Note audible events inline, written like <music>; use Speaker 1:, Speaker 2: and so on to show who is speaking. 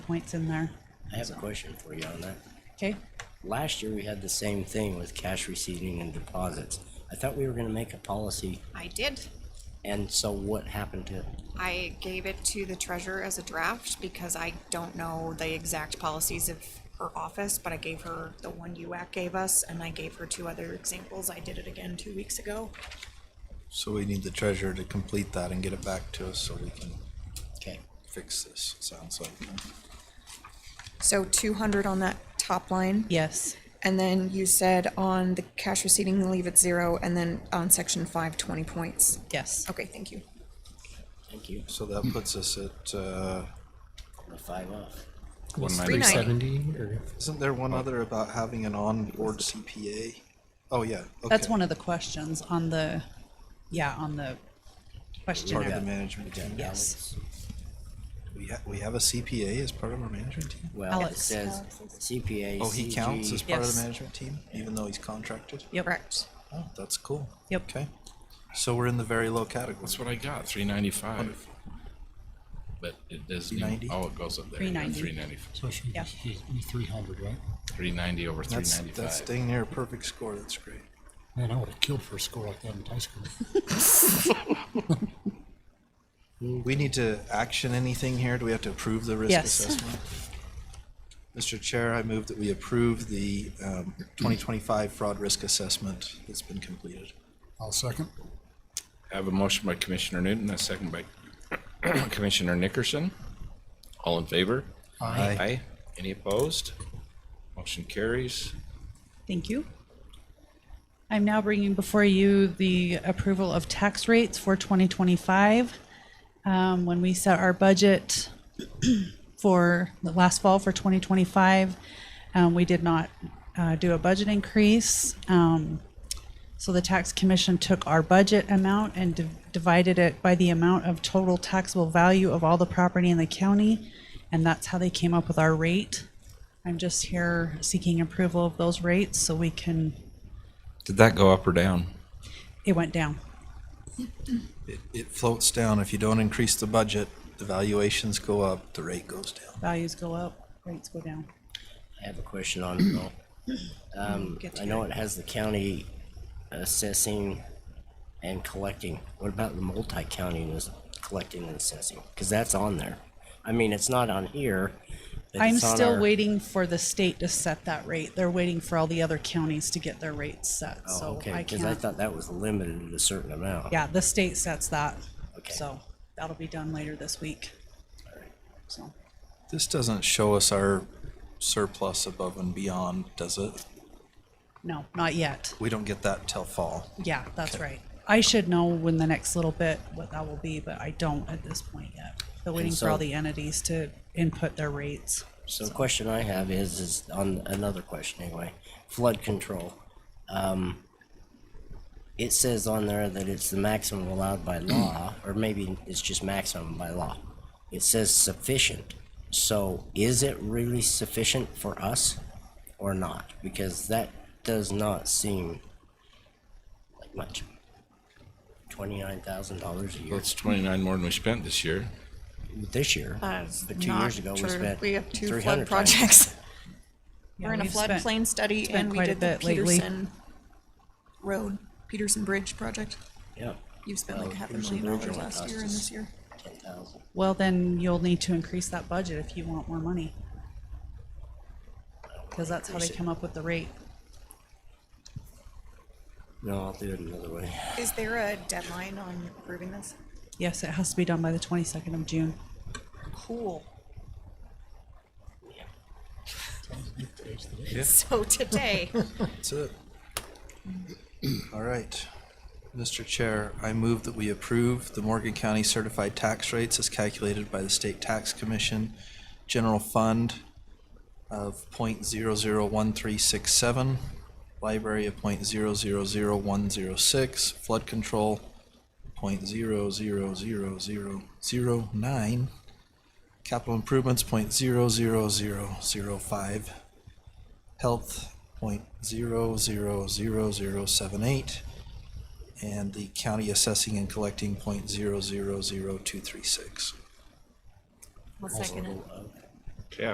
Speaker 1: points in there.
Speaker 2: I have a question for you on that.
Speaker 1: Okay.
Speaker 2: Last year, we had the same thing with cash receiving and deposits. I thought we were gonna make a policy,
Speaker 3: I did.
Speaker 2: and so what happened to,
Speaker 3: I gave it to the treasurer as a draft because I don't know the exact policies of her office, but I gave her the one UAC gave us and I gave her two other examples. I did it again two weeks ago.
Speaker 4: So we need the treasurer to complete that and get it back to us so we can
Speaker 2: okay,
Speaker 4: fix this, it sounds like.
Speaker 3: So two hundred on that top line.
Speaker 1: Yes.
Speaker 3: And then you said on the cash receiving, leave it zero, and then on section five, twenty points.
Speaker 1: Yes.
Speaker 3: Okay, thank you.
Speaker 2: thank you,
Speaker 4: So that
Speaker 5: Hmm.
Speaker 4: puts us at, uh,
Speaker 2: the five off.
Speaker 5: One
Speaker 3: three
Speaker 5: ninety.
Speaker 3: ninety.
Speaker 5: or
Speaker 4: isn't there
Speaker 5: Oh.
Speaker 4: one other about having an on-board CPA? Oh, yeah.
Speaker 1: That's
Speaker 4: okay.
Speaker 1: one of the questions on the, yeah, on the
Speaker 4: Part of the
Speaker 1: questionnaire.
Speaker 4: management team.
Speaker 1: Yes.
Speaker 4: We have, we have a CPA as part of our management team?
Speaker 2: Well, it
Speaker 1: Alex.
Speaker 2: says CPA,
Speaker 4: Oh, he counts as
Speaker 2: CG,
Speaker 4: part of
Speaker 1: Yes.
Speaker 4: the management team, even though he's contracted?
Speaker 1: Yep.
Speaker 3: Correct.
Speaker 4: Oh, that's cool.
Speaker 1: Yep.
Speaker 4: Okay. So we're in the very low category.
Speaker 5: That's what I got, three ninety-five. But it doesn't, even-
Speaker 4: 390?
Speaker 5: oh, it goes up there.
Speaker 1: 390.
Speaker 5: Three ninety-five,
Speaker 6: So it should
Speaker 1: Yeah.
Speaker 6: be- should be three hundred, right?
Speaker 5: three ninety over three
Speaker 4: That's, that's
Speaker 5: ninety-five.
Speaker 4: dang near a perfect score. That's great.
Speaker 6: Man, I would have killed for a score like that in
Speaker 3: <laughs>
Speaker 6: high school.
Speaker 4: We need to action anything here? Do we have to approve the risk
Speaker 1: Yes.
Speaker 4: assessment? Mr. Chair, I move that we approve the um, 2025 fraud risk assessment that's been completed.
Speaker 6: I'll second.
Speaker 5: I have a motion by Commissioner Newton, a second by <clears throat> Commissioner Nickerson. All in favor?
Speaker 4: Aye.
Speaker 5: Aye. Any opposed? Motion carries.
Speaker 1: Thank you. I'm now bringing before you the approval of tax rates for 2025. Um, When we set our budget <clears throat> for the last fall for 2025, um, we did not uh, do a budget increase. Um, So the tax commission took our budget amount and div- divided it by the amount of total taxable value of all the property in the county, and that's how they came up with our rate. I'm just here seeking approval of those rates so we can,
Speaker 5: Did that go up or down?
Speaker 1: it went down.
Speaker 4: It, it floats down. If you don't increase the budget, the valuations go up, the rate goes down.
Speaker 1: Values go up, rates go down.
Speaker 2: I have a question on it
Speaker 1: <coughs>
Speaker 2: though. Um,
Speaker 1: Get to
Speaker 2: I know it has the county assessing and collecting. What about the multi-county was collecting and assessing? Cause that's on there. I mean, it's not on here. but
Speaker 1: I'm
Speaker 2: it's on
Speaker 1: still
Speaker 2: our-
Speaker 1: waiting for the state to set that rate. They're waiting for all the other counties to get their rates set,
Speaker 2: Oh,
Speaker 1: so
Speaker 2: Okay,
Speaker 1: I
Speaker 2: cause I
Speaker 1: can't.
Speaker 2: thought that was limited to a certain amount.
Speaker 1: Yeah, the state sets that,
Speaker 2: Okay.
Speaker 1: so that'll be done later this week. So,
Speaker 4: This doesn't show us our surplus above and beyond, does it?
Speaker 1: no, not yet.
Speaker 4: We don't get that till fall.
Speaker 1: Yeah, that's right. I should know when the next little bit, what that will be, but I don't at this point yet. They're waiting for
Speaker 2: so-
Speaker 1: all the entities to input their rates.
Speaker 2: So the question I have is, is on another question anyway, flood control. Um, it says on there that it's the maximum allowed
Speaker 1: <clears throat>
Speaker 2: by law, or maybe it's just maximum by law. It says sufficient. So is it really sufficient for us or not? Because that does not seem like much. Twenty-nine thousand dollars a year
Speaker 5: That's twenty-nine more than we spent this year.
Speaker 2: this year,
Speaker 3: That's
Speaker 2: but two
Speaker 3: Uh, not
Speaker 2: years ago we
Speaker 3: true.
Speaker 2: spent
Speaker 3: We have two
Speaker 2: three
Speaker 3: flood
Speaker 2: hundred <laughs>
Speaker 3: projects. We're in a
Speaker 1: we've spent-
Speaker 3: floodplain study
Speaker 1: been
Speaker 3: and we
Speaker 1: quite a
Speaker 3: did the
Speaker 1: bit lately.
Speaker 3: Peterson Road, Peterson Bridge project.
Speaker 2: Yeah,
Speaker 3: You've spent
Speaker 2: Well,
Speaker 3: like half a
Speaker 2: Peterson
Speaker 3: million
Speaker 2: Bridge only
Speaker 3: dollars last
Speaker 2: cost
Speaker 3: year and
Speaker 2: us-
Speaker 3: this year.
Speaker 2: ten thousand.
Speaker 1: Well, then you'll need to increase that budget if you want more money. Because that's how they come up with the rate.
Speaker 2: No, I'll do it another way.
Speaker 3: Is there a deadline on approving this?
Speaker 1: Yes, it has to be done by the twenty-second of June.
Speaker 3: Cool.
Speaker 6: Today's the day.
Speaker 3: <laughs> So today,
Speaker 4: That's it. All right. Mr. Chair, I move that we approve the Morgan County certified tax rates as calculated by the State Tax Commission, general fund of point zero zero one three six seven, library of point zero zero zero one zero six, flood control point zero zero zero zero zero nine, capital improvements point zero zero zero zero five, health point zero zero zero zero seven eight and the county assessing and collecting point zero zero zero two three six.
Speaker 3: I'll second it.